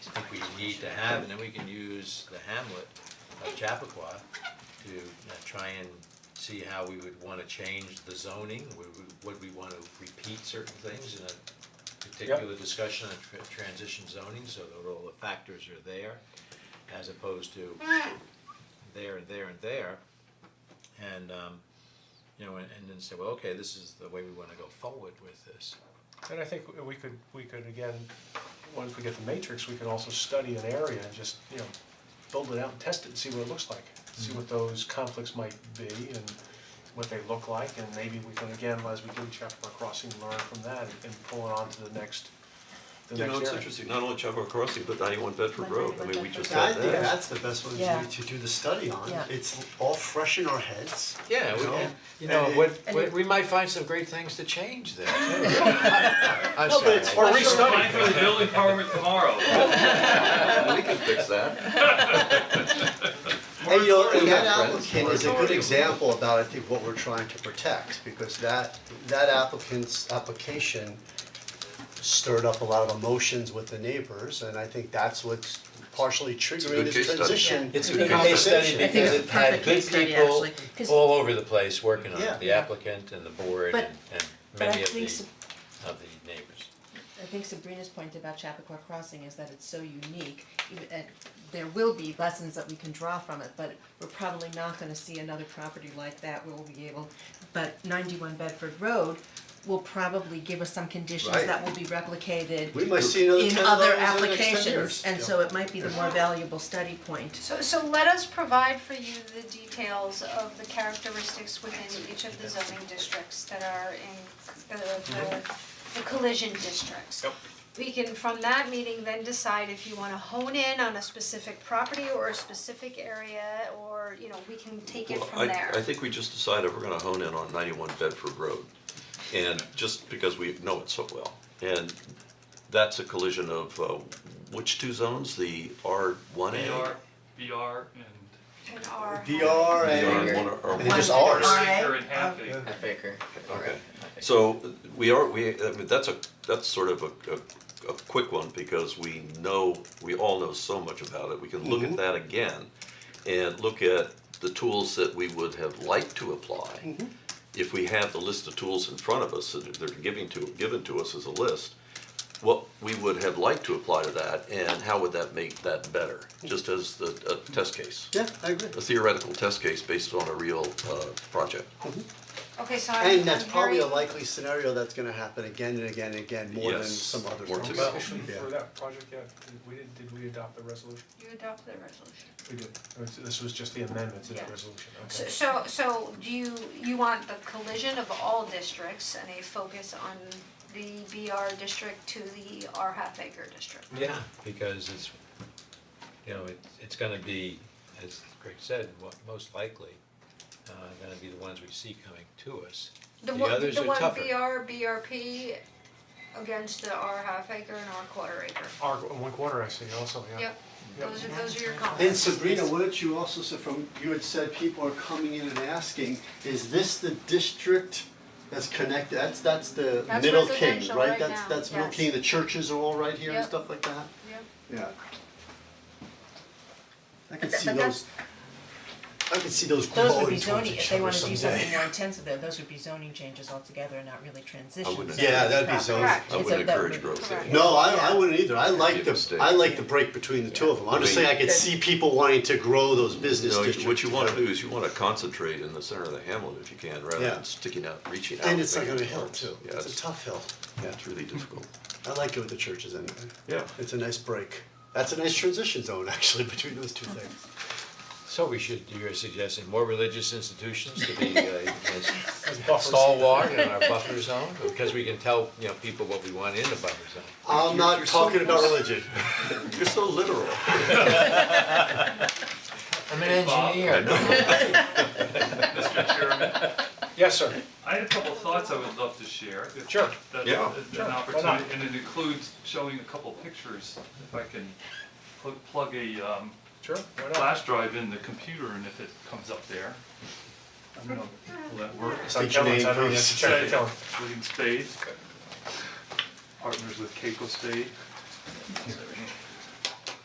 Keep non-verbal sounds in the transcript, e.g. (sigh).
need to have, and then we can use the hamlet of Chappaqua to uh, try and see how we would wanna change the zoning, would we, would we wanna repeat certain things in a particular discussion on tr- transition zoning, so that all the factors are there, as opposed to there and there and there. And um, you know, and and then say, well, okay, this is the way we wanna go forward with this. And I think we could, we could again, once we get the matrix, we could also study an area and just, you know, build it out and test it and see what it looks like. See what those conflicts might be and what they look like, and maybe we can again, as we do Chappaqua Crossing, learn from that and- and pull it on to the next, the You next know, area. it's interesting, not only Chapel Crossing, but ninety-one Bedford Road, I mean, we just Yeah, I had think that. that's the best one Yeah. to, to do the study on, Yeah. it's all fresh in our heads. Yeah, we, You know? and, you know, And- what, and what- it- we might find some great things to change (laughs) there. too. I'm No, but sorry. it's fresh in our Apply for the building permit tomorrow. We can fix that. And you know, and that We're friends. applicant is a We're good already- example about, I think, what we're trying to protect, because that, that applicant's application stirred up a lot of emotions with the neighbors, and I think that's what's partially triggering good this case study. transition Yeah. It's a I good think case it's- study I think because it's it a had perfect good case study, people actually, 'cause- all over the place working on Yeah. it, the applicant and the board But- and, and but I many of the, think s- of the neighbors. I think Sabrina's point about Chappaqua Crossing is that it's so unique, even, and there will be lessons that we can draw from it, but we're probably not gonna see another property like that where we'll be able, but ninety-one Bedford Road will probably give us some conditions Right. that will be replicated We might see another in 10 of other those in the next 10 applications, years. and Yeah. so it might be the more valuable study point. So, so let us provide for you the details of the characteristics within each of the zoning districts that are in uh, the, Mm-hmm. the, the collision districts. We can, from that meeting, then decide if you wanna hone in on a specific property or a specific area, or, you know, we can (laughs) take it Well, from I, there. I think we just decided we're gonna hone in on ninety-one Bedford Road, and just because we know it so well. And that's a collision of, uh, which two zones, the R one A? BR, BR and And our- VR BR and, one or R and just One. ours. Alright. Baker and Happy. Okay, so we are, we, I mean, that's a, that's sort of a, a, a quick one because we know, we all know so much about it. We can look at that again and look at the tools that we would have liked to apply. If we have the list of tools in front of us, that they're giving to, given to us as a list, what we would have liked to apply to that and how would that make that better? Just as the, a test case, Yeah, I agree. a theoretical test case based on a real, uh, project. Okay, so I'm, And that's I'm probably a very- likely scenario that's gonna happen again and again and again, more than Yes, some other more things. to go. Officially Yeah. for that project, yeah, did we, did we adopt the resolution? You adopt the resolution. We did, this was just the amendment to that Yeah. resolution, So, okay. so, so do you, you want the collision of all districts and a focus on the BR district to the R half acre district? Yeah, because it's, you know, it, it's gonna be, as Greg said, what, most likely, uh, gonna be the ones we see coming to us. The The one, others the are one tougher. BR, BRP against the R half acre and R quarter acre. Our, one quarter, I see, also, yeah. Yep, those are, those are your And comments. Sabrina, wouldn't you also say from, you had said people are coming in and asking, is this the district that's connected, that's, that's the That's Middle King, residential right? right That's, now, that's Middle yes. King, the churches are all right here and Yep. stuff like that? Yep. Yeah. I can But see that- but those, I can see those Those would be glowing towards zoning, if each they other wanna do something someday. more intensive there, those would be zoning changes altogether and not really transitions. wouldn't- that Yeah, would that'd be proper. zoning. Correct. I It's a- wouldn't that encourage would- growth Correct. there. No, I, I wouldn't either, I like the, mistake. I like the break between the two of them, I'm just I mean- saying I could see people wanting to grow those business No, you- districts. what you wanna do is you wanna concentrate in the center of the hamlet if you can, rather Yeah. than sticking out, reaching out. And it's not making gonna hill turns. too, Yeah, it's a it's, tough hill, yeah, it's really difficult. I like it with the churches anyway. Yeah. It's a nice break. That's a nice transition zone, (laughs) actually, between those two things. So we should, you're suggesting more religious institutions to (laughs) be, uh, As buffers. stalwart in our buffer zone, because we can tell, you know, people what we want in the buffer zone. I'm not talking about religion. You're so literal. I'm an engineer. Mr. Chairman, Yes, sir, I had a couple thoughts I would love to share. if Sure. That's Yeah. that's Sure, an why opportunity, not? and it includes showing a couple pictures, if I can pl- plug a um sure, why not? flash drive in the computer and if it comes up there. I don't know, will that work? State your name, please. Check, tell him. William Spade. Partners with Keiko Spade.